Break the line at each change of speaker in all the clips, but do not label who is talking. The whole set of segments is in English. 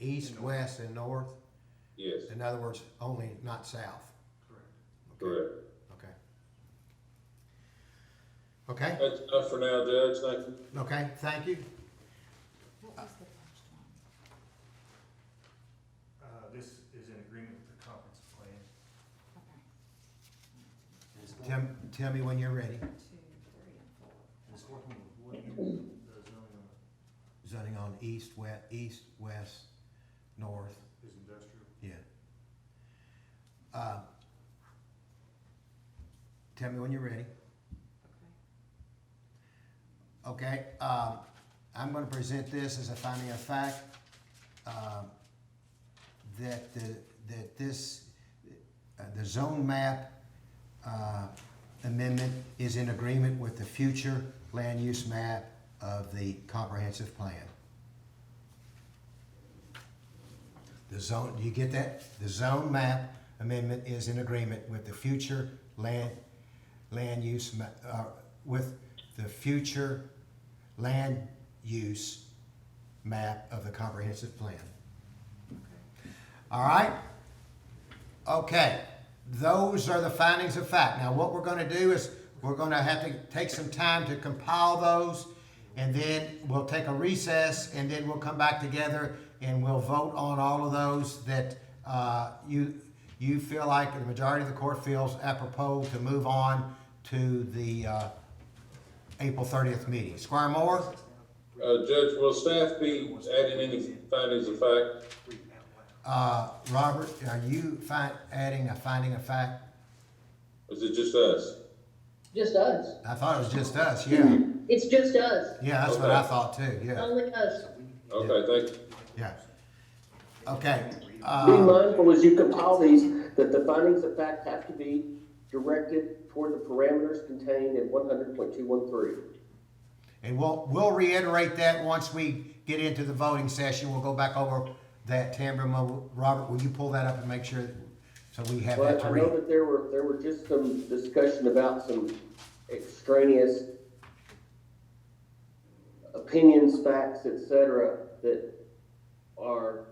east, west, and north?
Yes,
In other words, only not south?
Correct.
Okay,
correct.
Okay. Okay,
That's enough for now, Judge, thank you.
okay, thank you.
What was the first one?
Uh, this is in agreement with the conference plan.
Okay.
Tim, tell me when you're ready.
One, Two, three, and four.
It's working with what you, the zoning on
Zoning on east, west, east, west, north,
it is industrial.
yeah. Uh, Tell me when you're ready.
Okay.
Okay, um, I'm gonna present this as a finding of fact, um, that the, that this, uh, the zone map, uh, amendment is in agreement with the future land use map of the comprehensive plan. The zone, do you get that? The zone map amendment is in agreement with the future land, land use, ma- uh, with the future land use map of the comprehensive plan. All right? Okay, those are the findings of fact. Now, what we're gonna do is, we're gonna have to take some time to compile those, and then we'll take a recess, and then we'll come back together, and we'll vote on all of those that, uh, you, you feel like, the majority of the court feels apropos to move on to the, uh, April thirtieth meeting. Squire Moore?
Uh, Judge, will staff be adding any findings of fact?
Read it out loud.
Uh, Robert, are you fin- adding a finding of fact?
Or Is it just us?
Just us.
I thought it was just us, yeah.
It's just us.
Yeah, that's what I thought too, yeah,
Um,
Only us.
Okay, thank you.
yeah. Okay,
Be
uh,
mindful as you compile these, that the findings of fact have to be directed toward the parameters contained in one hundred point two one three.
and we'll, we'll reiterate that once we get into the voting session, we'll go back over that, Tamara, Mo- Robert, will you pull that up and make sure, so we have that
But
to
I know
read?
that there were, there were just some discussion about some extraneous opinions, facts, et cetera, that are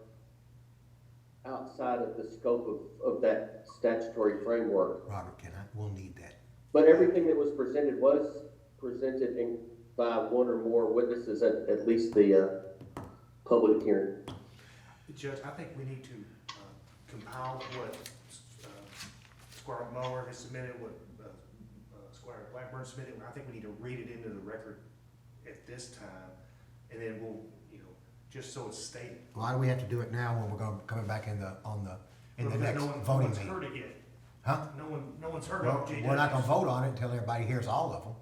outside of the scope of, of that statutory framework.
Robert, can I, we'll need that,
But everything that was presented was presented in, by one or more witnesses at, at least the, uh, public hearing.
Judge, I think we need to uh, compile what uh, Squire Mower has submitted, what uh, uh, Squire Blackburn submitted. I think we need to read it into the record at this time, and then we'll, you know, just so it's stated.
why do we have to do it now when we're going, coming back in the, on the, in the
Because
next
no one-
voting
No one's
meeting?
heard it yet.
Huh?
No one, no one's heard
Well,
of it.
we're not gonna vote on it until everybody hears all of them.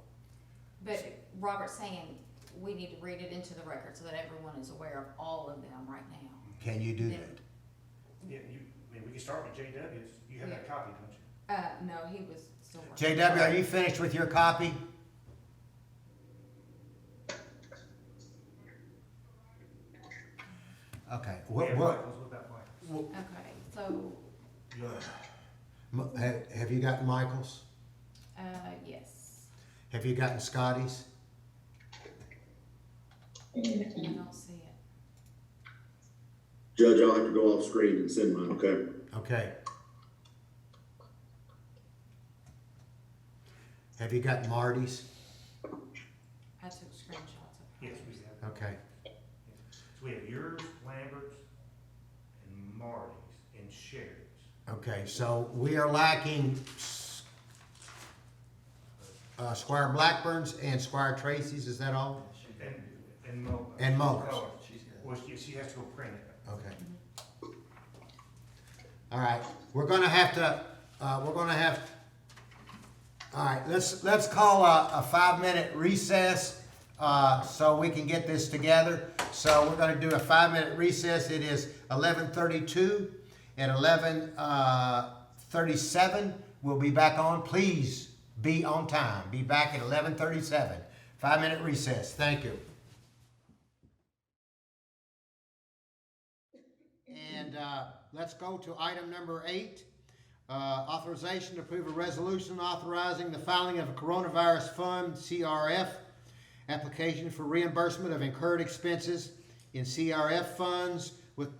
But Robert's saying we need to read it into the record so that everyone is aware of all of them right now.
Can you do
Yeah.
that?
Yeah, you, I mean, we can start with JW's. You have that copy, don't you?
Uh, no, he was still working.
JW, are you finished with your copy? Okay, what,
Yeah,
what,
Michael's with that one.
Okay, so,
You know,
m- have, have you gotten Michael's?
uh, yes,
Have you gotten Scotty's?
I don't see it.
Judge, I'll have to go off screen and send mine, okay?
Okay. Have you got Marty's?
I took screenshots of it.
Yes, we have. that.
Okay,
So we have yours, Lambert's, and Marty's, and Sherry's.
okay, so we are lacking s- uh, Squire Blackburn's and Squire Tracy's, is that all?
And, and Mo.
And Muller's.
Muller. Well, she, she has to go print it.
Okay. All right, we're gonna have to, uh, we're gonna have, all right, let's, let's call a, a five-minute recess, uh, so we can get this together. So we're gonna do a five-minute recess. It is eleven thirty-two and eleven, uh, thirty-seven. We'll be back on. Please be on time. Be back at eleven thirty-seven. Five-minute recess. Thank you. And uh, let's go to item number eight, uh, authorization to approve a resolution authorizing the filing of a coronavirus fund, CRF, application for reimbursement of incurred expenses in CRF funds with